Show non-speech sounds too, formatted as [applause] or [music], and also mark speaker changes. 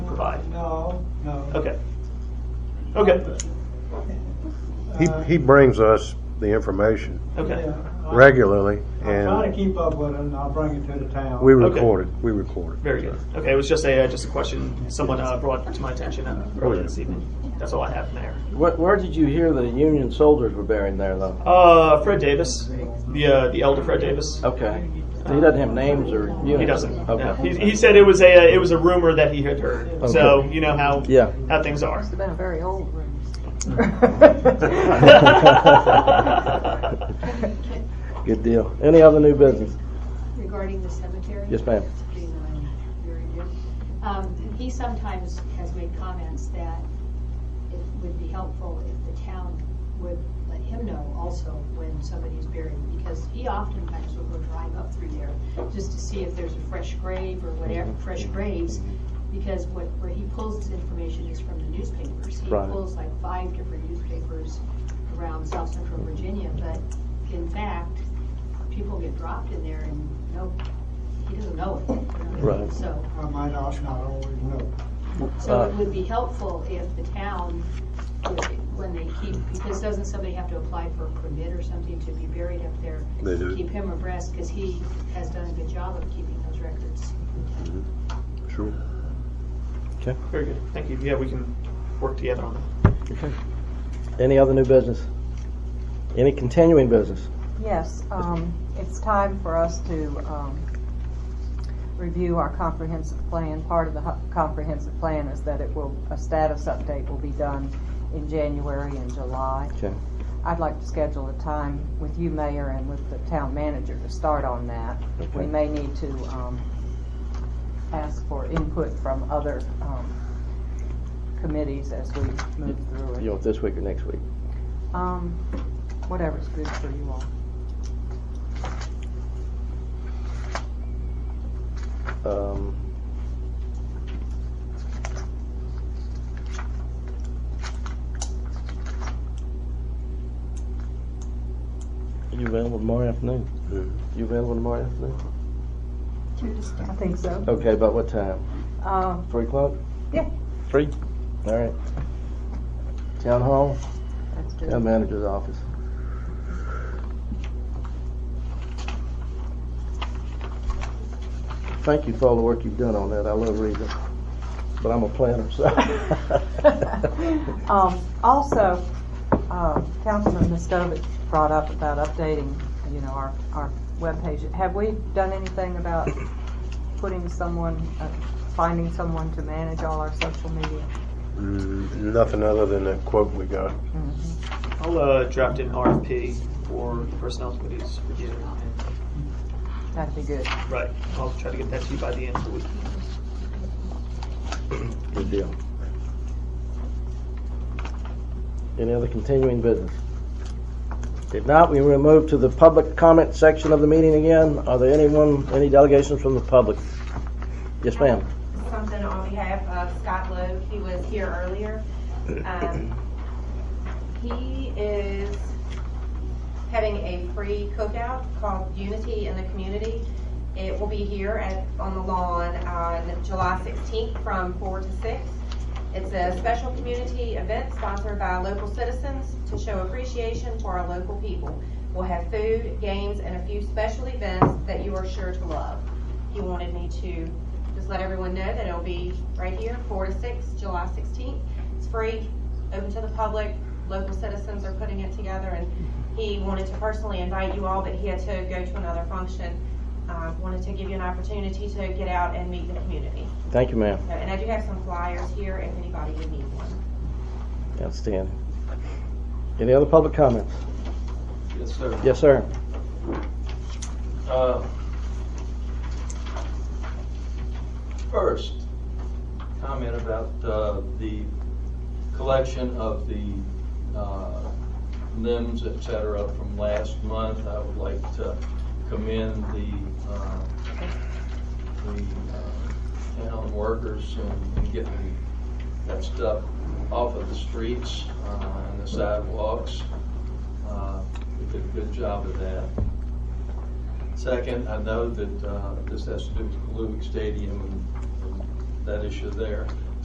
Speaker 1: provide.
Speaker 2: No, no.
Speaker 1: Okay. Okay.
Speaker 3: He,
Speaker 2: Uh,
Speaker 3: he brings us the information
Speaker 1: Okay.
Speaker 2: yeah. I-
Speaker 3: regularly,
Speaker 2: I'm trying to
Speaker 3: and
Speaker 2: keep up with it, and I'll bring it to the town.
Speaker 3: we
Speaker 1: Okay.
Speaker 3: record it, we record it.
Speaker 1: Very good. Okay, it was just a uh, just a question someone uh, brought to my attention uh, earlier this evening. That's all I have, Mayor.
Speaker 4: Where, where did you hear the Union soldiers were buried there, though?
Speaker 1: Uh, Fred Davis, the uh, the elder Fred Davis.
Speaker 4: Okay. He doesn't have names or units?
Speaker 1: He doesn't. no. He,
Speaker 4: Okay.
Speaker 1: he
Speaker 5: [laughs]
Speaker 1: said it was a uh, it was a rumor that he had heard. So
Speaker 4: Okay.
Speaker 1: you know how
Speaker 4: Yeah.
Speaker 1: how things are.
Speaker 6: It's been a very old room.
Speaker 4: Good deal. Any other new business?
Speaker 5: regarding the cemetery?
Speaker 4: Yes, ma'am.
Speaker 5: Very good. Um, He sometimes has made comments that it would be helpful if the town would let him know also when somebody is buried, because he oftentimes will go drive up through there just to see if there's a fresh grave or whatever,
Speaker 4: Mm-hmm.
Speaker 5: fresh graves, because what, where he pulls his information is from the newspapers. He
Speaker 4: Right.
Speaker 5: pulls like five different newspapers around South Central Virginia, but in fact, people get dropped in there and no, he doesn't know it. you know?
Speaker 4: Right. Uh,
Speaker 5: So,
Speaker 2: I might not not always know.
Speaker 5: so it would be helpful if the town, would- when they keep, because doesn't somebody have to apply for a permit or something to be buried up there?
Speaker 3: They do.
Speaker 5: Keep him abreast, because he has done a good job of keeping those records.
Speaker 3: Sure.
Speaker 1: Very good. Thank you. Yeah, we can work together on that.
Speaker 4: Uh, Any other new business? Any continuing business?
Speaker 6: Yes, um, it's time for us to, um, review our comprehensive plan. Part of the hu- comprehensive plan is that it will, a status update will be done in January and July.
Speaker 4: Okay.
Speaker 6: I'd like to schedule a time with you, Mayor, and with the town manager to start on that. We
Speaker 4: Okay.
Speaker 6: may need to, um, ask for input from other, um, committees as we move through it.
Speaker 4: You want this week or next week?
Speaker 6: Um, whatever's good for you all.
Speaker 4: Um, You available tomorrow afternoon? You available tomorrow afternoon?
Speaker 6: I think so.
Speaker 4: Okay, about what time?
Speaker 6: Um,
Speaker 4: Three o'clock?
Speaker 6: Yeah.
Speaker 4: Three? All right. Town hall,
Speaker 6: that's good. [laughs]
Speaker 4: town manager's office. Thank you for all the work you've done on that. I love reading, but I'm a planner, so.
Speaker 6: Um, also, uh, Councilman Miskovic brought up about updating, you know, our, our webpage. Have we done anything about putting someone, uh, finding someone to manage all our social media?
Speaker 3: Mm, Nothing other than that quote we got.
Speaker 1: I'll uh, draft an RFP for the personnel committee's review.
Speaker 6: That'd be good.
Speaker 1: And, right. I'll try to get that to you by the end of the week.
Speaker 4: Good deal. Any other continuing business? If not, we will move to the public comment section of the meeting again. Are there anyone, any delegations from the public? Yes, ma'am.
Speaker 7: something on behalf of Scott Lowe. He was here earlier. Um, He is having a free cookout called Unity in the Community. It will be here at, on the lawn on July 16th from 4 to 6. It's a special community event sponsored by local citizens to show appreciation for our local people. We'll have food, games, and a few special events that you are sure to love. He wanted me to just let everyone know that it'll be right here, four to six, July sixteenth. It's free, open to the public, local citizens are putting it together, and he wanted to personally invite you all, but he had to go to another function. Uh, wanted to give you an opportunity to get out and meet the community.
Speaker 4: Thank you, ma'am.
Speaker 7: So, And I do have some flyers here if anybody would need one.
Speaker 4: Outstanding. Any other public comments?
Speaker 8: Yes, sir.
Speaker 4: Yes, sir.
Speaker 8: Uh, First, comment about uh, the collection of the uh, limbs, et cetera, from last month. I would like to commend the, uh, the uh, town workers in- in getting that stuff off of the streets uh, and the sidewalks. Uh, They did a good job of that. Second, I know that uh, this has to do with Kaluvik Stadium and that issue there.